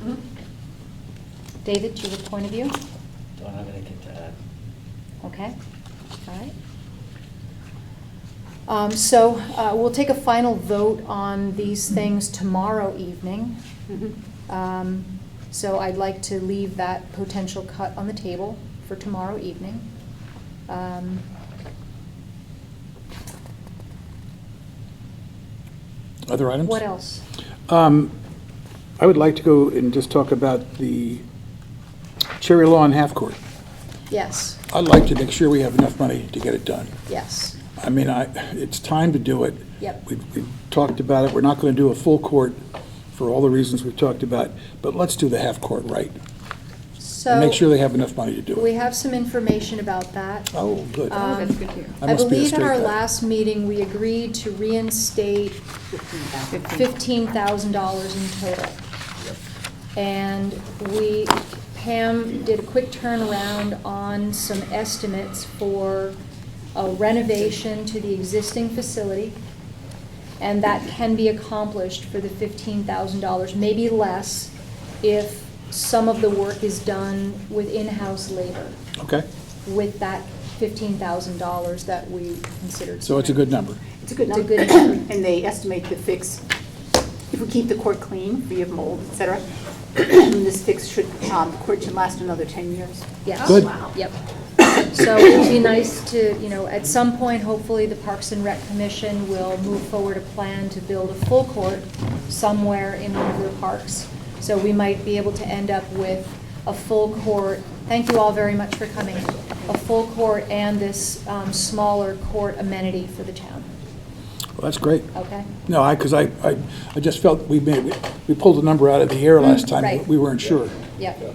Mm-hmm. David, you have a point of view? Don't have anything to add. Okay, all right. Um, So uh, we'll take a final vote on these things tomorrow evening. Mm-hmm. Um, So I'd like to leave that potential cut on the table for tomorrow evening. Um, Other items? What else? Um, I would like to go and just talk about the Cherry Lawn Half Court. Yes, I'd like to make sure we have enough money to get it done. yes, I mean, I, it's time to do it. Yep. We, we talked about it, we're not gonna do a full court for all the reasons we've talked about, but let's do the half court right. so. And make sure they have enough money to do We it. have some information about that. Oh, good. Um, that's good to hear. I I must be a believe at straight our guy. last meeting, we agreed to reinstate fifteen thousand dollars in total. And we, Pam did a quick turnaround on some estimates for a renovation to the existing facility. And that can be accomplished for the fifteen thousand dollars, maybe less, if some of the work is done with in-house labor Okay, with that fifteen thousand dollars that we considered. so it's a good number. It's a good It's a number, good number. and they estimate the fix, if we keep the court clean, free of mold, et cetera, this fix should, um, court should last another 10 years. Yes. Good. Yep. So it'd be nice to, you know, at some point, hopefully, the Parks and Rec Commission will move forward a plan to build a full court somewhere in one of their parks. So we might be able to end up with a full court, thank you all very much for coming, a full court and this um, smaller court amenity for the town, Well, that's great. okay? No, I, because I, I, I just felt we made, we pulled a number out of the air last time. Mm, right. We weren't sure. Yep,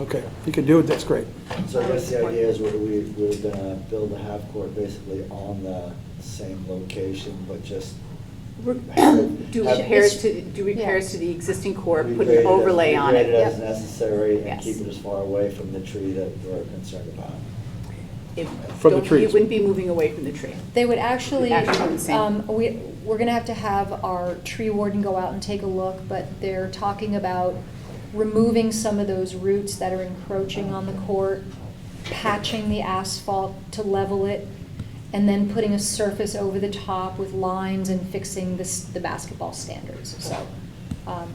Okay, if you can do it, that's great. So I guess the idea is we're, we- we're gonna build a half-court basically on the same location, but just have it- Do have- repairs to, do repairs Yeah. to the existing court, put regrade it an as- overlay on regrade it as it. necessary and Yes. keep it as far away from the tree that we're concerned about. It- From the don't- trees. It wouldn't be moving away from the tree. They would actually, Actually, same. um, we, we're gonna have to have our tree warden go out and take a look, but they're talking about removing some of those roots that are encroaching on the court, patching the asphalt to level it, and then putting a surface over the top with lines and fixing this, the basketball standards, so, um,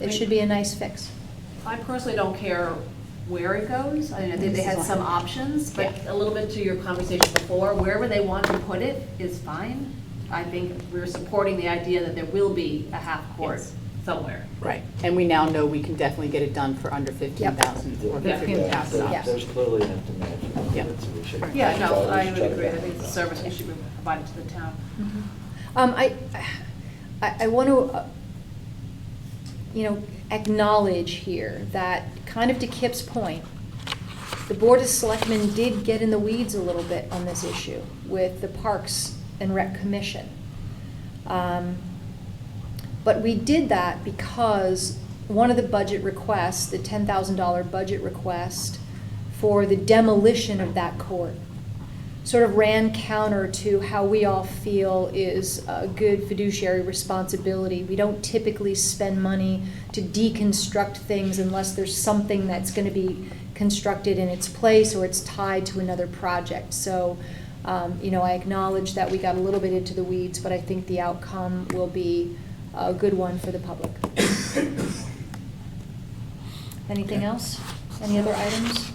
it should be a nice fix. I personally don't care where it goes. I know they they had some options, but Yeah. a little bit to your conversation before, wherever they want to put it is fine. I think we're supporting the idea that there will be a half-court Yes. somewhere. Right. And we now know we can definitely get it done for under 15,000 or Yeah. There- 15,000. There's clearly enough demand for Yeah. it, so we should. Yeah, no, we I should would try to agree. I balance think it's a it. service that should be provided to the town. Um, I, I, I want to, you know, acknowledge here that, kind of to Kip's point, the Board of Selectmen did get in the weeds a little bit on this issue with the Parks and Rec Commission. Um, But we did that because one of the budget requests, the ten thousand dollar budget request for the demolition of that court, sort of ran counter to how we all feel is a good fiduciary responsibility. We don't typically spend money to deconstruct things unless there's something that's gonna be constructed in its place or it's tied to another project. So, um, you know, I acknowledge that we got a little bit into the weeds, but I think the outcome will be a good one for the public. Anything else? Any other items?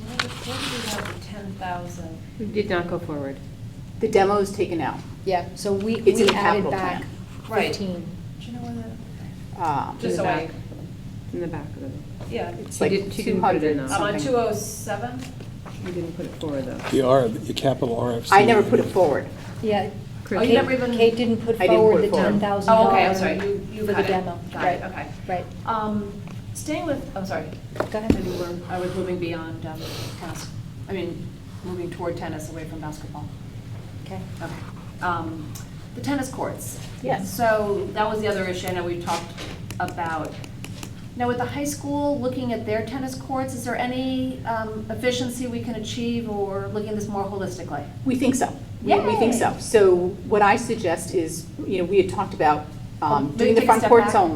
Did not go forward. The demo is taken out. Yeah, so we, It's in we added the capital back plan. Right. fifteen. Um, Just In the so I- back. In the back of the, Yeah. It's She like did- she didn't 200 put it in. I'm on something. two oh seven. you didn't put it forward though. The R, the capital RFC. I never put it forward. Yeah. Chris- Oh, you Kate- never even- Kate didn't put I didn't forward put the it forward. ten thousand Oh, dollars. okay, I'm sorry. You, you got it. For the demo, Got right, it, okay. right. Um, staying with, I'm sorry. Go ahead. Maybe we're, I was moving beyond, um, tennis, I mean, moving toward tennis away from basketball. Okay. Okay. Um, The tennis courts. Yes. So that was the other issue I know we talked about. Now, with the high school, looking at their tennis courts, is there any um, efficiency we can achieve or looking at this more holistically? We think so. We- We think so. So what I suggest is, you know, we had talked about um, Maybe doing the take a front step courts back. only.